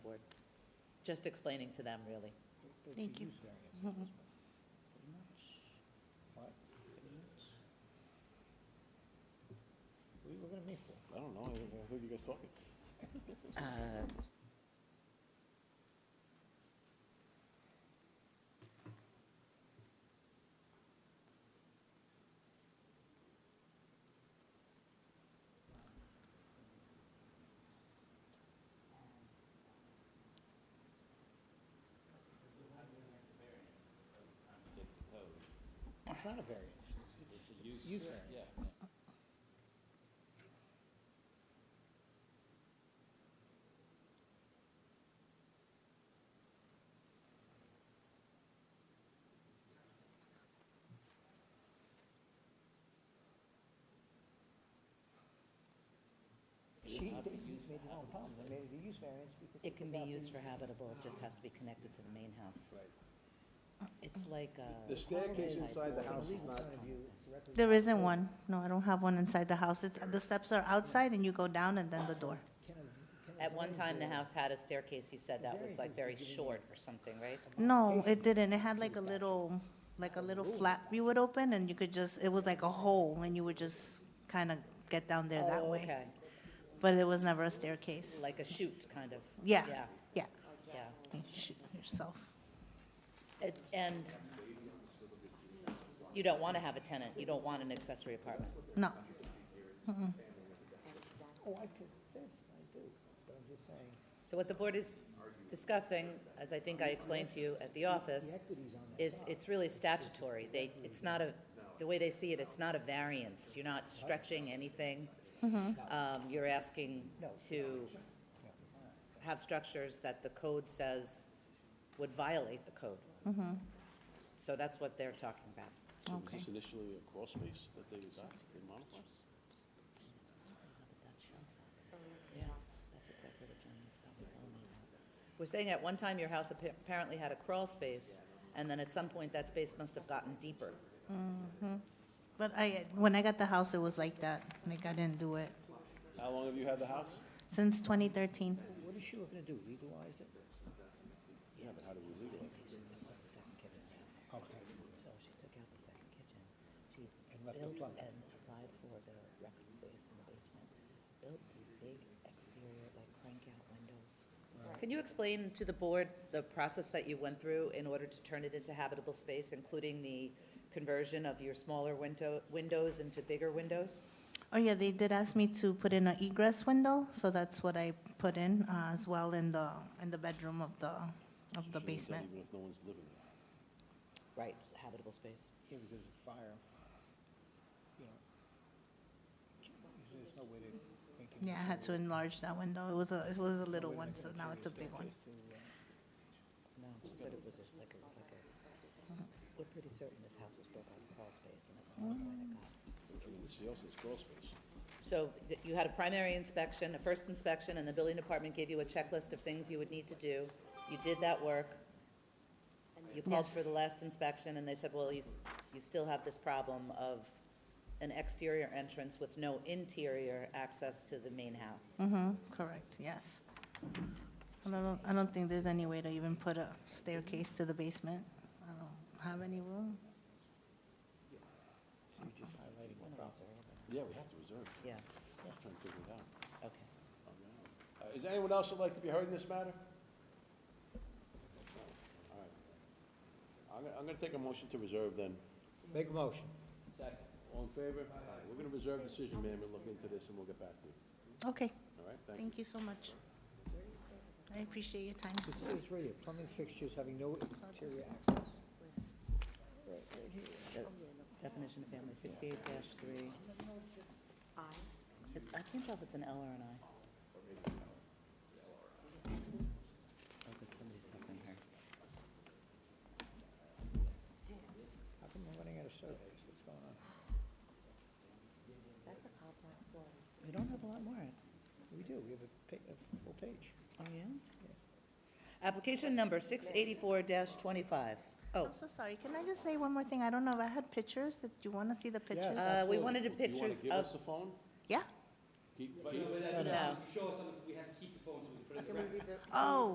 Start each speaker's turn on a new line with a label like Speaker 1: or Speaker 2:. Speaker 1: just explaining to them, really.
Speaker 2: It's a
Speaker 3: Thank you. Mm-hmm.
Speaker 2: use variance at this point, pretty much. What? Pretty much. What are you looking at me for?
Speaker 4: I don't know, I heard you guys talking.
Speaker 1: Uh,
Speaker 2: It's not a variance, it's, it's a use variance. She, they use made their own problem, they made it a use variance because.
Speaker 1: It can be used
Speaker 2: for.
Speaker 1: for habitable, it just has to be connected to the main house.
Speaker 2: Right.
Speaker 1: It's like uh, a.
Speaker 5: The staircase inside the house is not,
Speaker 3: There isn't one. No, I don't have one inside the house. It's, the steps are outside and you go down and then the door.
Speaker 1: At one time, the house had a staircase, you said that was like very short or something, right?
Speaker 3: No, it didn't. It had like a little, like a little flap you would open and you could just, it was like a hole and you would just kind of get down there that
Speaker 1: Oh,
Speaker 3: way.
Speaker 1: Okay,
Speaker 3: But it was never a staircase.
Speaker 1: like a chute, kind of.
Speaker 3: Yeah,
Speaker 1: Yeah,
Speaker 3: yeah.
Speaker 1: yeah.
Speaker 3: You shoot yourself.
Speaker 1: It- And you don't want to have a tenant, you don't want an accessory apartment.
Speaker 3: No.
Speaker 2: Oh, I could, yes, I do, but I'm just saying,
Speaker 1: So what the board is discussing, as I think I explained to you at the office,
Speaker 2: equities on that.
Speaker 1: is it's really statutory. They, it's not a, the way they see it, it's not a variance. You're not stretching anything. Um, You're asking to have structures that the code says would violate the code. So that's what they're talking about.
Speaker 4: So was
Speaker 3: Okay.
Speaker 4: this initially a crawl space that they got, they modified?
Speaker 1: Yeah, that's exactly what John was probably telling me about. We're saying at one time your house appa- apparently had a crawl space, and then at some point that space must have gotten deeper.
Speaker 3: But I, when I got the house, it was like that. Like I didn't do it
Speaker 4: How long have you had the house?
Speaker 3: since 2013.
Speaker 2: What is she looking to do, legalize it?
Speaker 4: Yeah, but how do we legalize it?
Speaker 2: Okay.
Speaker 1: So she took out the second kitchen. She
Speaker 2: And left the built plug. and
Speaker 1: applied for the rec space in the basement, built these big exterior, like crank-out windows. Can you explain to the board the process that you went through in order to turn it into habitable space, including the conversion of your smaller window, windows into bigger windows?
Speaker 3: Oh, yeah, they did ask me to put in an egress window, so that's what I put in uh, as well in the, in the bedroom of the, of
Speaker 4: Should we have
Speaker 3: the
Speaker 4: done
Speaker 3: basement.
Speaker 4: Even if no one's living there.
Speaker 1: Right, habitable space.
Speaker 2: Yeah, because of fire, you know. There's no way to make it.
Speaker 3: Yeah, I had to enlarge that window. It was a, it was a
Speaker 2: no
Speaker 3: little
Speaker 2: way to
Speaker 3: one,
Speaker 2: make
Speaker 3: so
Speaker 2: an
Speaker 3: now
Speaker 2: interior
Speaker 3: it's a big one.
Speaker 2: staircase to, uh,
Speaker 1: No, she said it was just like, it was like a, we're pretty certain this house was built out of crawl space and at some point it got.
Speaker 4: And then the else is crawl space.
Speaker 1: So th- you had a primary inspection, a first inspection, and the building department gave you a checklist of things you would need to do. You did that work. You called for
Speaker 3: Yes.
Speaker 1: the last inspection, and they said, well, you, s- you still have this problem of an exterior entrance with no interior access to the main house.
Speaker 3: Mm-hmm, correct, yes. I don't, I don't think there's any way to even put a staircase to the basement. I don't have any room.
Speaker 2: So you're just highlighting the problem.
Speaker 4: Yeah, we have to reserve,
Speaker 1: Yeah,
Speaker 4: I'm trying to figure it out.
Speaker 1: okay.
Speaker 4: Uh, Is there anyone else that'd like to be heard in this matter? All right. I'm gonna, I'm gonna take a motion to reserve then.
Speaker 2: Make a motion.
Speaker 4: Second. All in favor? All right, we're gonna reserve decision, ma'am, and look into this and we'll get back to you.
Speaker 3: Okay,
Speaker 4: All right, thank you.
Speaker 3: thank you so much. I appreciate your time.
Speaker 2: It says right here, plumbing fixtures having no interior access. Right, right here.
Speaker 1: Definition of family, sixty-eight three. I? I can't tell if it's an L or an I. Oh, good, somebody's helping her.
Speaker 2: How come we're running out of surveys? What's going on?
Speaker 6: That's a complex one.
Speaker 1: We don't have a lot more.
Speaker 2: We do, we have a pa, a full page.
Speaker 1: Oh, yeah? Application number six eighty-four twenty-five. Oh,
Speaker 3: I'm so sorry, can I just say one more thing? I don't know if I had pictures, did you want to see the pictures?
Speaker 2: Yes.
Speaker 1: uh, we wanted
Speaker 4: Do you wanna
Speaker 1: pictures
Speaker 4: give
Speaker 1: of,
Speaker 4: us the phone?
Speaker 3: Yeah?
Speaker 4: Keep-
Speaker 7: No, but that's
Speaker 1: No,
Speaker 7: not-
Speaker 1: no.
Speaker 7: if you show us something, we have to keep the phone so we can put it in the record.
Speaker 3: Oh,